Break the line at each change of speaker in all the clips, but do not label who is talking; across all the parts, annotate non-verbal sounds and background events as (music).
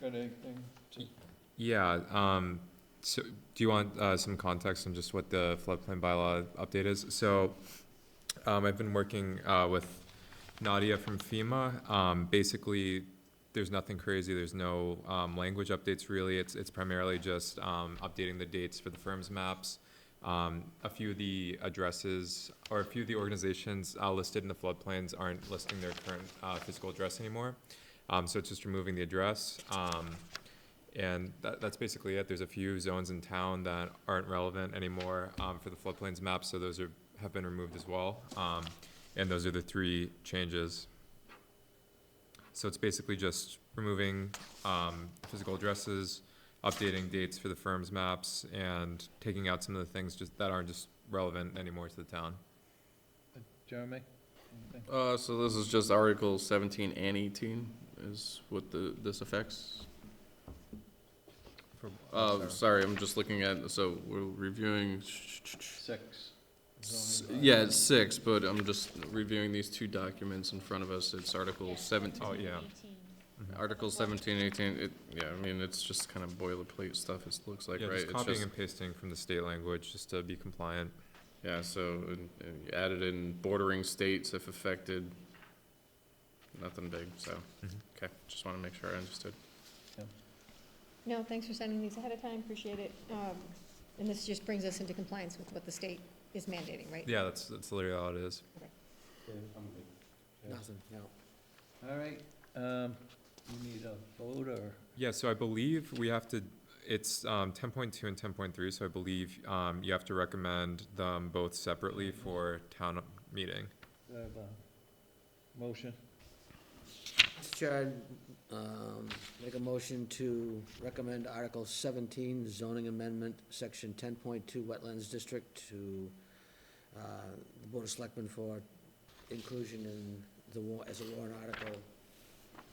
got anything to?
Yeah, um, so do you want, uh, some context on just what the floodplain bylaw update is? So, um, I've been working, uh, with Nadia from FEMA. Um, basically, there's nothing crazy, there's no, um, language updates really. It's, it's primarily just, um, updating the dates for the firm's maps. Um, a few of the addresses, or a few of the organizations, uh, listed in the floodplains aren't listing their current, uh, physical address anymore. Um, so it's just removing the address. Um, and that, that's basically it. There's a few zones in town that aren't relevant anymore, um, for the floodplains map, so those are, have been removed as well. Um, and those are the three changes. So it's basically just removing, um, physical addresses, updating dates for the firm's maps, and taking out some of the things just, that aren't just relevant anymore to the town.
Jeremy? Anything?
Uh, so this is just Article seventeen and eighteen is what the, this affects?
For-
Uh,
sorry.
sorry, I'm just looking at, so we're reviewing,
Six.
s-
zoning bylaw.
yeah, it's six, but I'm just reviewing these two documents in front of us. It's Article seventeen.
Oh, yeah. Mm-hmm.
Article seventeen, eighteen, it, yeah, I mean, it's just kind of boilerplate stuff, it looks like,
Yeah,
right?
just
It's
copying and pasting from the state language, just to be compliant.
Yeah, so, and, and you added in bordering states if affected, nothing big, so,
Mhm.
okay, just wanna make sure I understood.
No, thanks for sending these ahead of time, appreciate it. Um, And this just brings us into compliance with what the state is mandating, right?
Yeah, that's, that's literally all it is.
Yeah. All right, um, you need a vote or?
Yeah, so I believe we have to, it's um, 10.2 and 10.3, so I believe um, you have to recommend them both separately for town meeting.
Do I have a Motion,
Mr. Chair, I'd, um, make a motion to recommend Article seventeen, zoning amendment, section ten point two, wetlands district to, uh, the Board of Selectmen for inclusion in the war, as a warrant article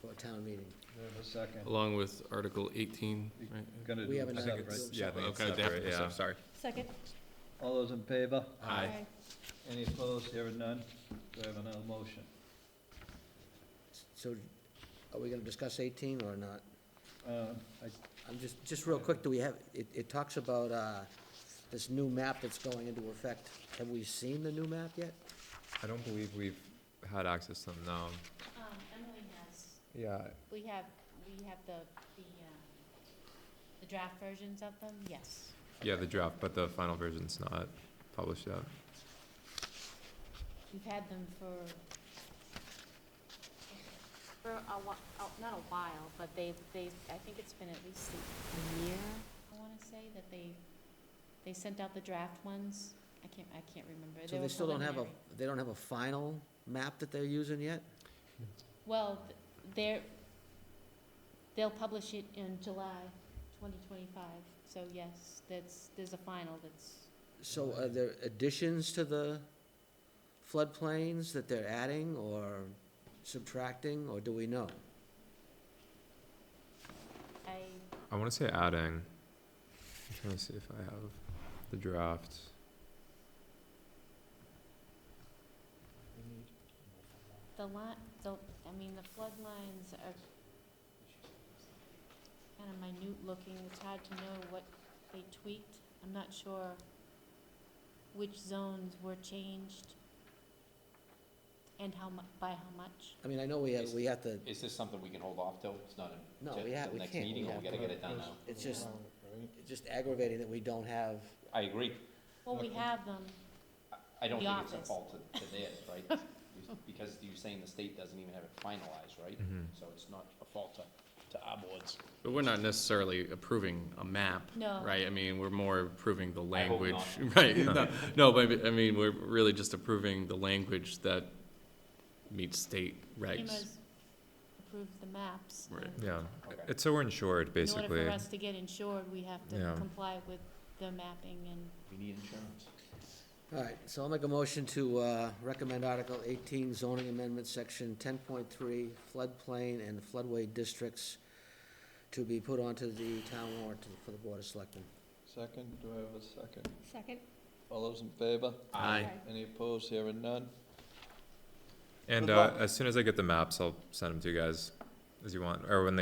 for a town meeting.
do I have a second?
Along with Article eighteen, right?
We're gonna
We
do
haven't
I
them
think
Yeah,
it's,
separate.
yeah, I think it's
Okay, they have to
separate,
be
yeah.
sep- sorry.
Second?
All those in favor?
Aye.
Any opposed, here and none? Do I have another motion?
So, are we gonna discuss eighteen or not?
Uh, I
I'm just, just real quick, do we have, it, it talks about, uh, this new map that's going into effect. Have we seen the new map yet?
I don't believe we've had access to them, no.
Um, Emily has,
Yeah.
we have, we have the, the, um, the draft versions of them, yes.
Yeah, the draft, but the final version's not published yet.
We've had them for, for a while, not a while, but they, they, I think it's been at least a year, I wanna say, that they, they sent out the draft ones. I can't, I can't remember.
So
were
they still don't have a,
preliminary.
they don't have a final map that they're using yet?
Hmm.
Well, th- they're, they'll publish it in July twenty twenty-five, so yes, that's, there's a final that's,
So are there additions to the floodplains that they're adding or subtracting, or do we know?
I,
I want to say adding. I'm trying to see if I have the draft.
the line, the, I mean, the flood lines are kind of minute looking, it's hard to know what they tweaked, I'm not sure which zones were changed and how mu, by how much.
I mean, I know we have, we have to,
Is this something we can hold off till? It's not in,
no,
till
we have,
the
we
next
can't. We
meeting, or
have
we gotta
to-
get it done now?
It's just, it's just aggravating that we don't have,
I agree.
Well, we have them,
I don't
The
think it's a
office.
fault to, to theirs,
(laughs)
right? Because you're saying the state doesn't even have it finalized, right?
Mhm.
So it's not a fault to, to our boards.
But we're not necessarily approving a map,
no.
right? I mean, we're more approving the
I hope
language, (laughs)
not.
right? No, no, but I mean, we're really just approving the language that meets state regs.
FEMA's approved the maps.
Right.
and
Yeah.
Okay.
It's so we're insured,
In order
basically.
for us to get insured, we have
Yeah.
to comply with the mapping and
We need insurance.
all right, so I'll make a motion to, uh, recommend Article eighteen zoning amendment, section ten point three, floodplain and floodway districts to be put onto the town warrant for the Board of Selectmen.
Second, do I have a second?
Second?
All those in favor?
Aye.
Any opposed, here and none?
And
Good
uh,
luck.
as soon as I get the maps, I'll send them to you guys as you want, or when they